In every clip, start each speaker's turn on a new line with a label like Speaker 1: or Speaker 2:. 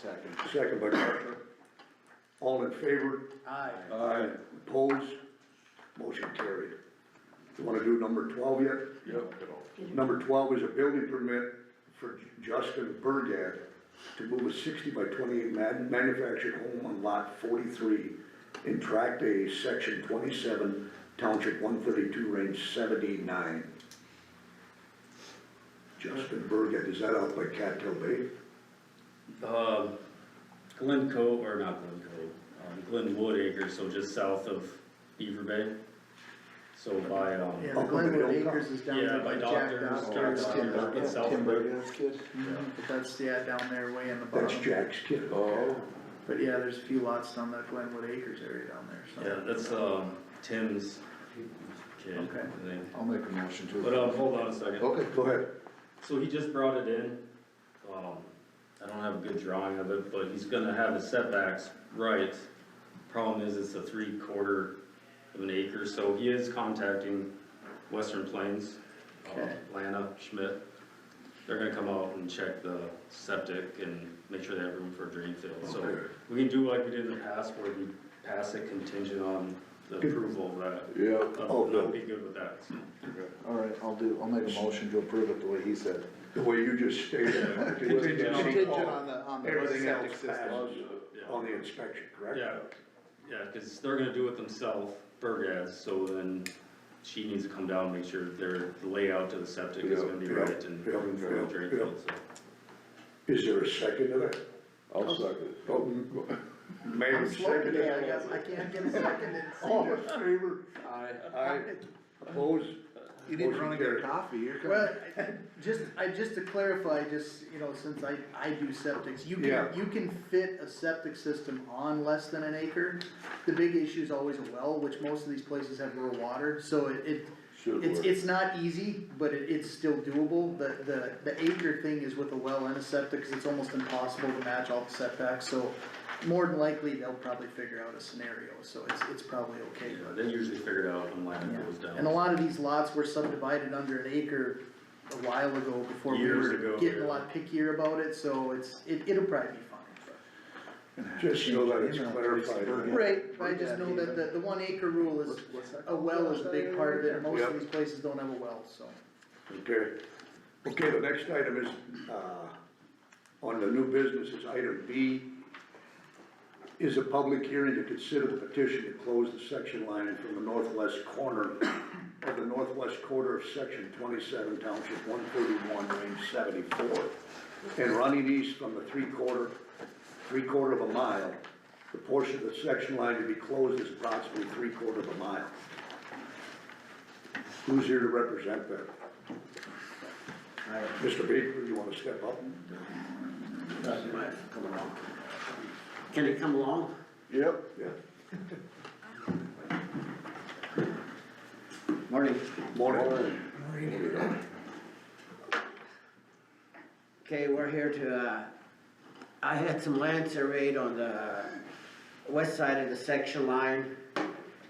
Speaker 1: Second.
Speaker 2: Second by Parker. All in favor?
Speaker 1: Aye.
Speaker 2: Aye. Opposed? Motion carried. You wanna do number twelve yet? Number twelve is a building permit for Justin Bergad to move a sixty by twenty-eight man- manufactured home on lot forty-three in tract A, section twenty-seven, township one thirty-two, range seventy-nine. Justin Bergad, is that out by Cattail Bay?
Speaker 3: Um, Glen Cove, or not Glen Cove, um, Glenwood Acres, so just south of Beaver Bay. So by, um,
Speaker 4: Yeah,
Speaker 2: Oh, but they
Speaker 4: Glenwood
Speaker 2: don't come.
Speaker 4: Acres is down
Speaker 3: Yeah,
Speaker 4: there
Speaker 3: by
Speaker 4: by Jack
Speaker 3: Doctors,
Speaker 4: Doctor's
Speaker 3: Doctors,
Speaker 4: kid.
Speaker 3: yeah.
Speaker 4: Yeah.
Speaker 3: South
Speaker 1: Tim
Speaker 3: Bay.
Speaker 1: Brady's kid?
Speaker 4: But that's, yeah, down there way in the
Speaker 2: That's
Speaker 1: Uh-huh.
Speaker 4: bottom.
Speaker 2: Jack's kid.
Speaker 1: Oh.
Speaker 4: But yeah, there's a few lots down that Glenwood Acres area down there, so.
Speaker 3: yeah, that's, um, Tim's kid,
Speaker 4: Okay.
Speaker 3: I think.
Speaker 1: I'll make a motion to.
Speaker 3: But, um, hold on a second.
Speaker 1: Okay.
Speaker 2: Go ahead.
Speaker 3: So he just brought it in, um, I don't have a good drawing of it, but he's gonna have his setbacks right. Problem is, it's a three quarter of an acre, so he is contacting Western Plains, um,
Speaker 4: Okay.
Speaker 3: Lana Schmidt. They're gonna come out and check the septic and make sure they have room for a drain field, so
Speaker 2: Okay.
Speaker 3: we can do like we did in the past, where we pass it contingent on the
Speaker 2: Good.
Speaker 3: approval of that.
Speaker 1: Yeah.
Speaker 2: Oh,
Speaker 3: I'll
Speaker 2: good.
Speaker 3: be good with that, so.
Speaker 1: All right, I'll do, I'll make a motion to approve it the way he said.
Speaker 2: The way you just stated it.
Speaker 3: Contingent on-
Speaker 2: Contingent on
Speaker 1: the, on
Speaker 2: Everything else passes
Speaker 3: Yeah.
Speaker 2: on the inspection, correct?
Speaker 3: Yeah, yeah, cause they're gonna do it themselves, Burgaz, so then she needs to come down and make sure their, the layout to the septic is gonna be
Speaker 2: Yeah,
Speaker 3: right and.
Speaker 2: yeah,
Speaker 3: room for
Speaker 2: yeah,
Speaker 3: the drain
Speaker 2: yeah.
Speaker 3: field, so.
Speaker 2: Is there a second to that?
Speaker 1: I'll second.
Speaker 2: Oh, m- Mayor,
Speaker 4: I'm slow
Speaker 2: second.
Speaker 4: today, I
Speaker 2: it.
Speaker 4: guess, I can't get a second in
Speaker 2: All in
Speaker 4: senior.
Speaker 2: favor? Aye. Opposed?
Speaker 1: You
Speaker 2: didn't run and get
Speaker 1: coffee, you're
Speaker 4: Well, I- just, I, just to clarify, just, you know, since I, I do septics, you can,
Speaker 2: Yeah.
Speaker 4: you can fit a septic system on less than an acre. The big issue is always a well, which most of these places have rural water, so it, it,
Speaker 1: Should
Speaker 4: it's,
Speaker 1: work.
Speaker 4: it's not easy, but it, it's still doable. The, the, the acre thing is with a well and a septic, cause it's almost impossible to match all the setbacks, so more than likely, they'll probably figure out a scenario, so it's, it's probably okay,
Speaker 3: Yeah,
Speaker 4: but.
Speaker 3: they usually figure it out when land goes
Speaker 4: Yeah,
Speaker 3: down.
Speaker 4: And a lot of these lots were subdivided under an acre a while ago before we
Speaker 3: Years
Speaker 4: were
Speaker 3: ago,
Speaker 4: getting a
Speaker 3: yeah.
Speaker 4: lot pickier about it, so it's, it, it'll probably be fine.
Speaker 2: Just so that it's
Speaker 1: Yeah.
Speaker 2: clarified.
Speaker 1: Yeah.
Speaker 4: Right, but I just know that the, the one acre rule is, a well is a big part of it, and most
Speaker 2: Yeah.
Speaker 4: of these places don't have a well, so.
Speaker 2: Okay. Okay, the next item is, uh, on the new business is item B. Is a public hearing to consider the petition to close the section line from the northwest corner of the northwest quarter of section twenty-seven township one thirty-one, range seventy-four. And running east from the three-quarter, three-quarter of a mile, the portion of the section line to be closed is approximately three-quarter of a mile. Who's here to represent that? Mr. Baker, you wanna step up?
Speaker 5: Can it come along?
Speaker 1: Yep.
Speaker 2: Yeah.
Speaker 5: Morning.
Speaker 2: Morning.
Speaker 5: Okay, we're here to, uh, I had some land surveyed on the west side of the section line,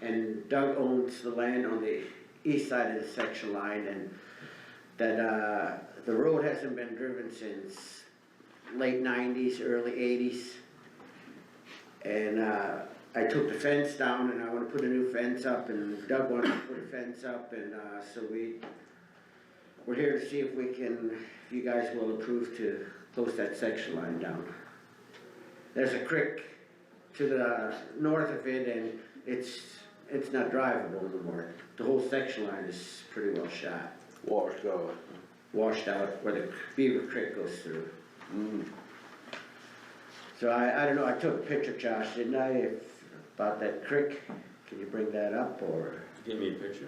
Speaker 5: and Doug owns the land on the east side of the section line, and that, uh, the road hasn't been driven since late nineties, early eighties. And, uh, I took the fence down and I wanna put a new fence up, and Doug wanted to put a fence up, and, uh, so we we're here to see if we can, if you guys will approve to close that section line down. There's a creek to the north of it and it's, it's not drivable anymore. The whole section line is pretty well shot,
Speaker 1: Washed out.
Speaker 5: washed out where the Beaver Creek goes through. So I, I don't know, I took a picture, Josh, didn't I, if- about that creek? Can you bring that up or,
Speaker 3: Give me a picture.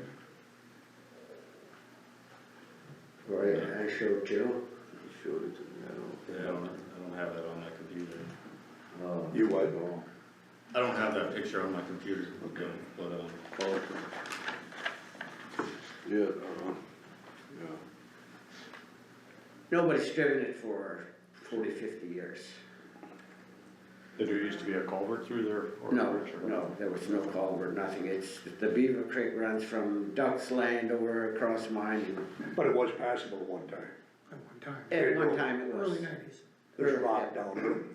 Speaker 5: or I showed Joe?
Speaker 1: Showed it to me, I
Speaker 3: Yeah, I don't, I don't have that on my computer.
Speaker 5: Oh,
Speaker 2: You what?
Speaker 1: don't know.
Speaker 3: I don't have that picture on my computer,
Speaker 2: Okay.
Speaker 3: but, um,
Speaker 1: Okay. Yeah, uh-huh, yeah.
Speaker 5: Nobody's driven it for 40, 50 years.
Speaker 6: Did there used to be a culvert through there? or a
Speaker 5: No,
Speaker 6: bridge or-
Speaker 5: no, there was no culvert, nothing, it's, the Beaver Creek runs from Duck's Land over across mine,
Speaker 2: But it was passable one time.
Speaker 5: and at one time it was.
Speaker 2: There's rock down there.